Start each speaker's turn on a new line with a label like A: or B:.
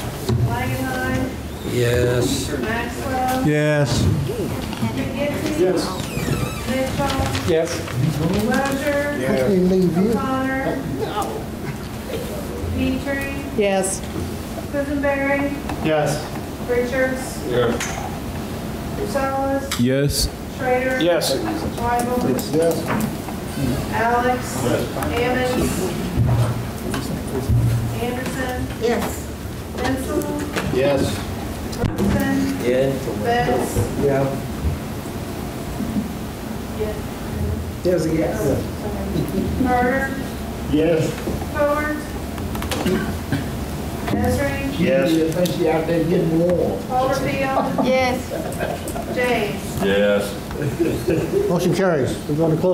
A: Langenheim,
B: Yes.
A: Maxwell,
C: Yes.
A: McGinty.
D: Yes.
A: Mitchell,
D: Yes.
A: Roger.
D: Yes.
A: O'Connor. Petrie,
E: Yes.
A: Quisenberry,
D: Yes.
A: Richards,
D: Yes.
A: Gonzalez,
C: Yes.
A: Schrader.
D: Yes.
A: Weigel, Alex. Ammons. Anderson,
E: Yes.
A: Bensel,
D: Yes.
A: Robinson,
B: Yeah.
A: Betts.
D: Yeah. Yes, yes.
A: Carter,
D: Yes.
A: Howard. Ezra.
D: Yes.
F: Especially out there getting warm.
A: Overfield,
E: Yes.
A: James.
C: Motion carries. We're going to close